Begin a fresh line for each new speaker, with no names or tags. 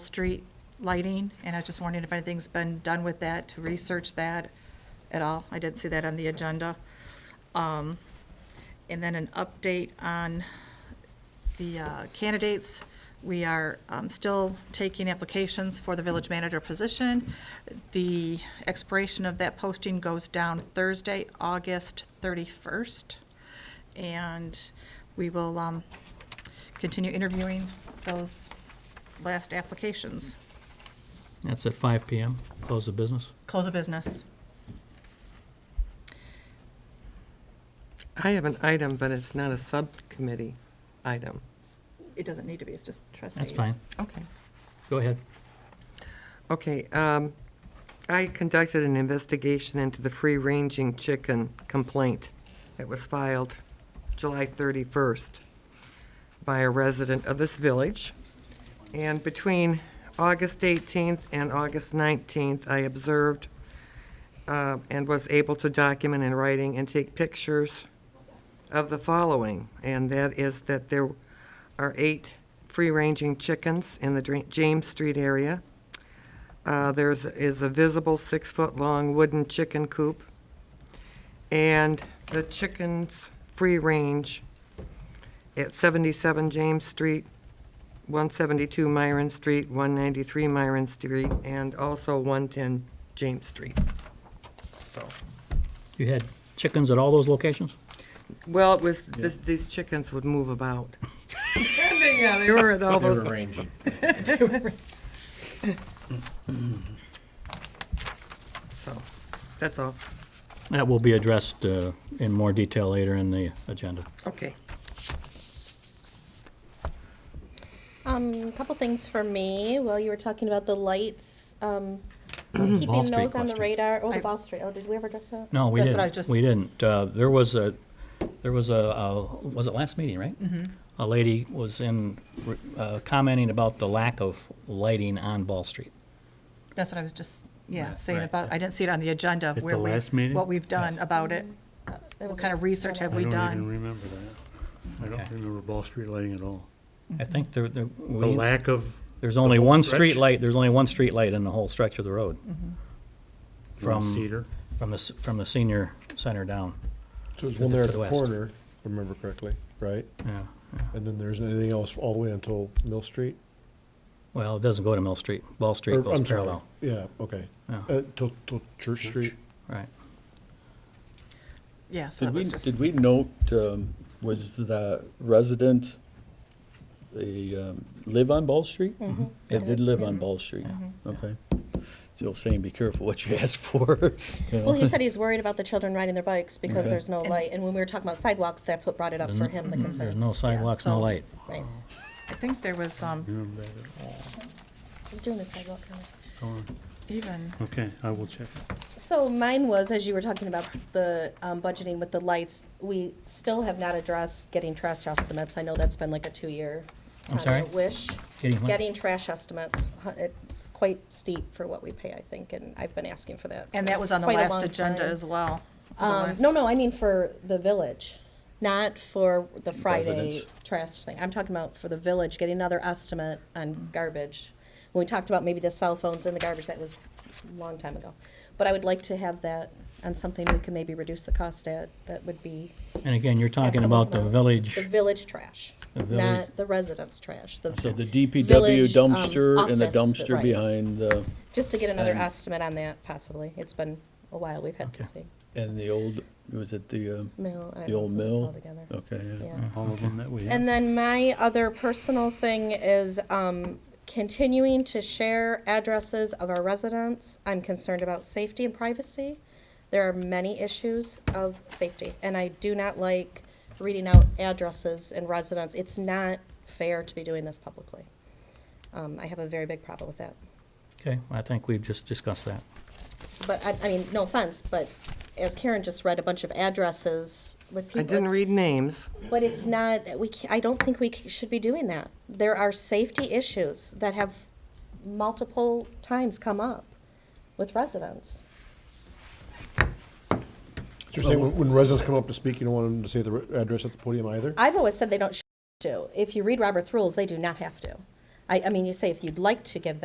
street lighting, and I was just wondering if anything's been done with that, to research that at all. I didn't see that on the agenda. Um, And then an update on the uh, candidates. We are um, still taking applications for the village manager position. The expiration of that posting goes down Thursday, August 31st. And we will um, continue interviewing those last applications.
That's at 5 PM, close the business.
Close of business.
I have an item, but it's not a subcommittee item.
It doesn't need to be, it's just trustees.
That's fine.
Okay.
Go ahead.
Okay, um, I conducted an investigation into the free-ranging chicken complaint that was filed July 31st by a resident of this village. And between August 18th and August 19th, I observed uh, and was able to document in writing and take pictures of the following, and that is that there are eight free-ranging chickens in the Dra- James Street area. Uh, There's, is a visible six-foot-long wooden chicken coop. And the chickens free-range at 77 James Street, 172 Myron Street, 193 Myron Street, and also 110 James Street. So,
You had chickens at all those locations?
well, it was, this- these chickens would move about. Yeah, they were at all
They
those
were ranging.
So, that's all.
That will be addressed uh, in more detail later in the agenda.
Okay.
Um, a couple things for me. Well, you were talking about the lights, um,
Ball
keeping
Street
those on the
question.
radar. Oh, the
I-
Ball Street. Oh, did we ever address that?
No, we
That's
didn't.
what I just-
We didn't. Uh, There was a, there was a, uh, was it last meeting, right? Mm-hmm. A lady was in, uh, commenting about the lack of lighting on Ball Street.
That's what I was just, yeah,
Right,
saying
right.
about, I didn't see it on the agenda.
At
where
the
we-
last meeting?
What we've done about it.
That
What
was
kind of
a-
research have we
I don't even
done?
remember that. I don't
Okay.
remember Ball Street lighting at all.
I
Mm-hmm.
think there, there,
The
we-
lack of,
there's only one street
stretch?
light, there's only one street light in the whole stretch of the road.
Mm-hmm.
from
From-
Cedar.
From the, s- from the senior center down.
So there's
to
one
the
there at the
west.
corner, if I remember correctly, right?
Yeah.
And then there's anything else all the way until Mill Street?
Well, it doesn't go to Mill Street. Ball Street
Or,
goes
I'm sorry,
parallel.
yeah, okay.
Yeah.
Uh, till, till Church Street?
Right.
Yeah, so
Did
that
we,
was just,
did we note, um, was the resident, they um, live on Ball Street? They did live
Mm-hmm.
on Ball Street, okay. So saying, be careful what you ask for, you know.
Well, he said he's worried about the children riding their bikes because
Okay.
there's no light. And when we were talking about sidewalks, that's what brought it up for him, the concern.
Mm-hmm. There's no sidewalks,
so-
no light.
Right.
I think there was um,
Remember that at all.
He was doing the sidewalk conversation.
Go on.
even,
Okay, I will check.
So mine was, as you were talking about the um, budgeting with the lights, we still have not addressed getting trash estimates. I know that's been like a two-year.
I'm
uh,
sorry?
Wish.
Getting what?
Getting trash estimates. Huh, It's quite steep for what we pay, I think, and I've been asking for that.
and
for
that was on the
quite a
last
long
agenda
time.
as well. the
Um,
last-
no, no, I mean for the village, not for the Friday
Residents.
trash thing. I'm talking about for the village, getting another estimate on garbage. When we talked about maybe the cell phones and the garbage, that was a long time ago. But I would like to have that on something we can maybe reduce the cost at, that would be.
And again, you're talking
Absolutely
about the
not.
village.
The village trash,
The village-
not the residents' trash. the-
So the DPW
Village, um,
dumpster and the
office, but
dumpster
right.
behind the,
Just to get another
and-
estimate on that possibly. It's been a while, we've had this
Okay.
thing.
and the old, was it the, um,
Mill. I
the
don't
old
know if it's
mill?
all together.
Okay, yeah.
Yeah.
All of them that we
And
have.
then my other personal thing is um, continuing to share addresses of our residents. I'm concerned about safety and privacy. There are many issues of safety, and I do not like reading out addresses and residents. It's not fair to be doing this publicly. Um, I have a very big problem with that.
Okay, I think we've just discussed that.
But I, I mean, no offense, but as Karen just read a bunch of addresses with people.
I didn't
it's-
read names.
But it's not, we, ca- I don't think we c- should be doing that. There are safety issues that have multiple times come up with residents.
So you're saying when- when residents come up to speak, you don't want them to say the re- address at the podium either?
I've always said they don't sh- do. If you read Robert's rules, they do not have to. I, I mean, you say if you'd like to give